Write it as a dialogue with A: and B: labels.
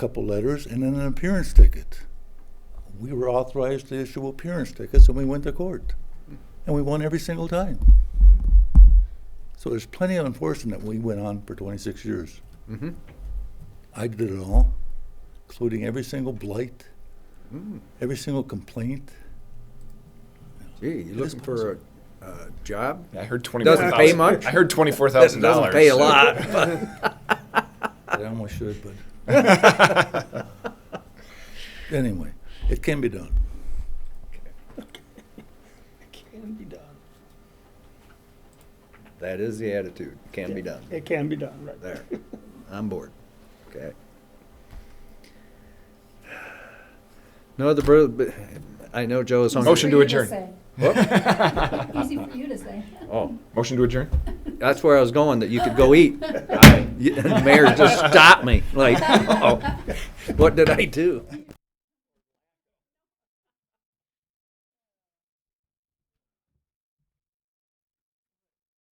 A: couple letters, and then an appearance ticket. We were authorized to issue appearance tickets, and we went to court. And we won every single time. So there's plenty of enforcement that we went on for 26 years.
B: Mhm.
A: I did it all, including every single blight,
B: Mm-hmm.
A: every single complaint.
B: Gee, you looking for a, a job?
C: I heard twenty-four
B: Doesn't
C: thousand.
B: pay much.
C: I heard twenty-four
B: Doesn't-
C: thousand dollars.
B: Doesn't pay a lot, but
A: I almost should, but. Anyway, it can be done.
D: It can be done.
B: that is the attitude. Can be done.
D: It can be done, right.
B: There, I'm bored. Okay. No other, bro- but- I know Joe is hungry.
C: Motion to
E: For you
C: adjourn.
E: say.
B: Whoop.
E: Easy for you to say.
B: Oh,
C: Motion to adjourn?
B: that's where I was going, that you could go eat.
C: Aye.
B: You- and the Mayor just stopped me, like, uh-oh, oh. what did I do?